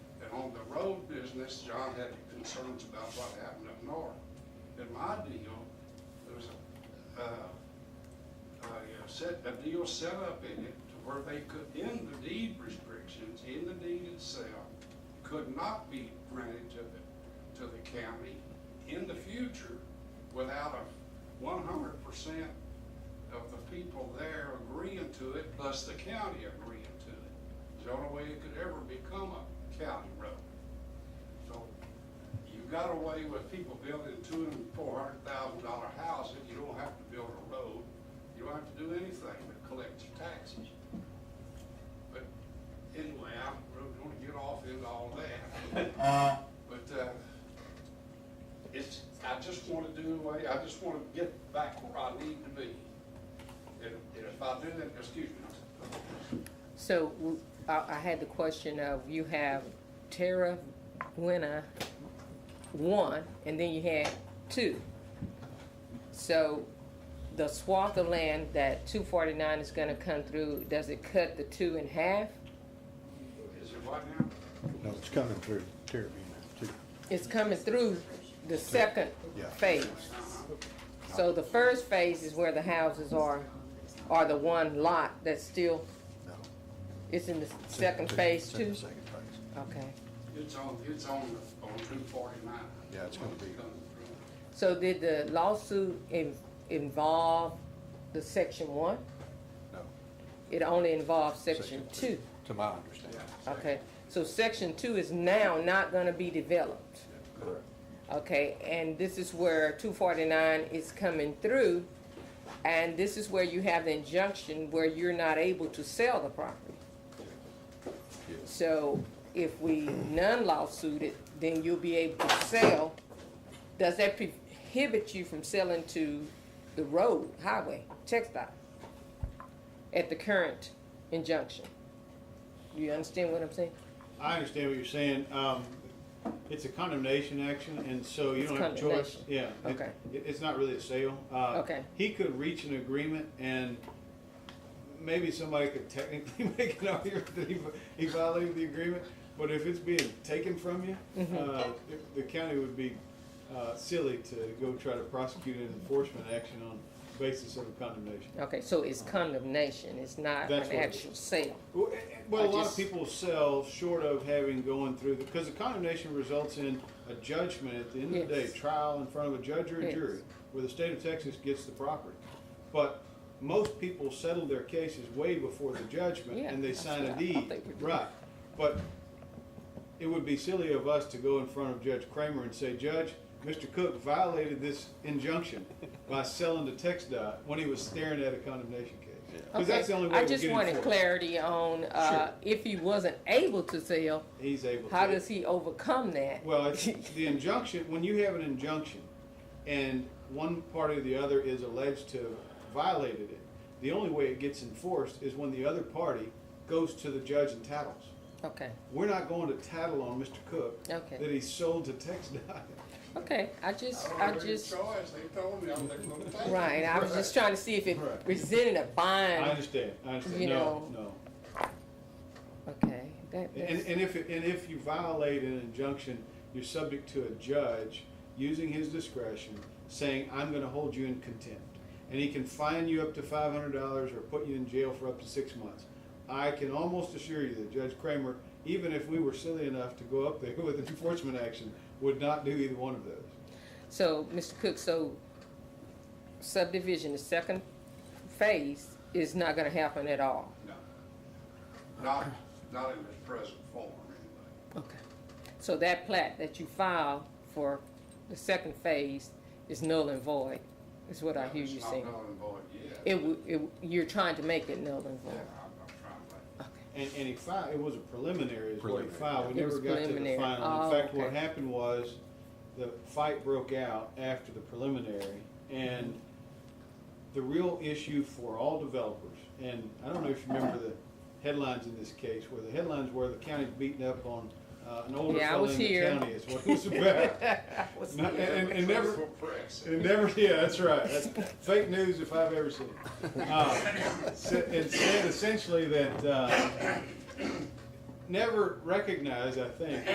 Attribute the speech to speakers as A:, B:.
A: business, John had concerns about what happened up north. And my deal, there was a, uh, a uh, set, a deal set up in it to where they could, in the deed restrictions, in the deed itself, could not be rented to the, to the county in the future without a one hundred percent of the people there agreeing to it, plus the county agreeing to it. It's the only way it could ever become a county road. So you got away with people building two and four hundred thousand dollar houses, you don't have to build a road, you don't have to do anything but collect your taxes. But anyway, I really don't wanna get off into all that. But, uh, it's, I just wanna do away, I just wanna get back where I need to be. And and if I do that, excuse me,
B: So w- I, I had the question of, you have Tara Buena, one, and then you had two. So the swath of land that two forty-nine is gonna come through, does it cut the two in half?
A: is it what now?
C: No, it's coming through Terravena too.
B: It's coming through the second
C: Yeah.
B: phase. So the first phase is where the houses are, are the one lot that's still,
C: No.
B: it's in the second phase
C: It's in
B: too?
C: the Second phase.
B: Okay.
A: It's on, it's on, the- on two forty-nine.
C: Yeah, it's gonna be-
B: So did the lawsuit in, involve the section one?
C: No.
B: It only involved section two.
C: To my understanding.
B: Okay, so section two is now not gonna be developed.
C: Correct.
B: Okay, and this is where two forty-nine is coming through, and this is where you have the injunction where you're not able to sell the property.
C: Yes.
B: So if we non-lawsuit it, then you'll be able to sell. Does that prohibit you from selling to the road, highway, textile? At the current injunction? Do you understand what I'm saying?
D: I understand what you're saying. Um, it's a condemnation action, and so you
B: It's
D: don't have a choice.
B: condemnation.
D: Yeah. it-
B: Okay.
D: It, it's not really a sale. Uh,
B: Okay.
D: He could reach an agreement and maybe somebody could technically make an argument that he, he violated the agreement, but if it's being taken from you,
B: Mm-hmm.
D: uh, the- the county would be, uh, silly to go try to prosecute an enforcement action on basis of a condemnation.
B: Okay, so it's condemnation, it's not
D: That's
B: an
D: what it
B: actual sale.
D: Well, eh, eh, well,
B: I
D: a lot
B: just-
D: of people sell short of having going through the because the condemnation results in a judgment at the end of the day,
B: Yes.
D: trial in front of a judge or a
B: Yes.
D: jury, where the state of Texas gets the property. But most people settle their cases way before the judgment
B: Yeah,
D: and they
B: that's
D: sign
B: what
D: a
B: I- I
D: deed,
B: think we do.
D: right? But it would be silly of us to go in front of Judge Kramer and say, Judge, Mr. Cook violated this injunction by selling to TexDOT when he was staring at a condemnation case.
B: Okay,
D: Because that's the only way
B: I
D: we
B: just
D: get
B: wanted
D: enforced.
B: clarity on, uh, if he wasn't able to sell,
D: He's able to.
B: how does he overcome that?
D: Well, it's, the injunction, when you have an injunction and one party or the other is alleged to have violated it, the only way it gets enforced is when the other party goes to the judge and tattles.
B: Okay.
D: We're not going to tattle on Mr. Cook
B: Okay.
D: that he sold to TexDOT.
B: Okay, I just,
A: I
B: I
A: don't have any
B: just,
A: choice, they told me I was gonna take it.
B: right, I was just trying to see if it
D: Right.
B: presented a
D: I
B: bind.
D: understand, I understand.
B: You
D: No,
B: know,
D: no.
B: Okay, that,
D: And,
B: that's,
D: and if, it- and if you violate an injunction, you're subject to a judge using his discretion, saying, I'm gonna hold you in contempt. And he can fine you up to five hundred dollars or put you in jail for up to six months. I can almost assure you that Judge Kramer, even if we were silly enough to go up there with an enforcement action, would not do either one of those.
B: so, Mr. Cook, so subdivision, the second phase is not gonna happen at all?
A: No. Not, not in its present form, anyway.
B: Okay. So that plat that you filed for the second phase is null and void, is what I hear you saying?
A: It's not null and void yet.
B: It, w- it, w- you're trying to make it null and
A: Yeah,
B: void?
A: I'm not trying to.
B: Okay,
D: And, and he filed, it was a preliminary is what he
C: Preliminary.
D: filed, we
B: It was
D: never got to the
B: preliminary.
D: final. In
B: Oh,
D: fact, what
B: okay.
D: happened was, the fight broke out after the preliminary, and the real issue for all developers, and I don't know if you remember the headlines in this case, where the headlines were the county's beating up on, uh, an older
B: Yeah, I
D: fellow
B: was
D: in the
B: here.
D: county is what it was about.
B: was
D: Not- And, and never,
A: Faithful press.
D: it never, yeah, that's right. That's fake news if I've ever seen it. Uh, so It said essentially that, uh, never recognized, I think,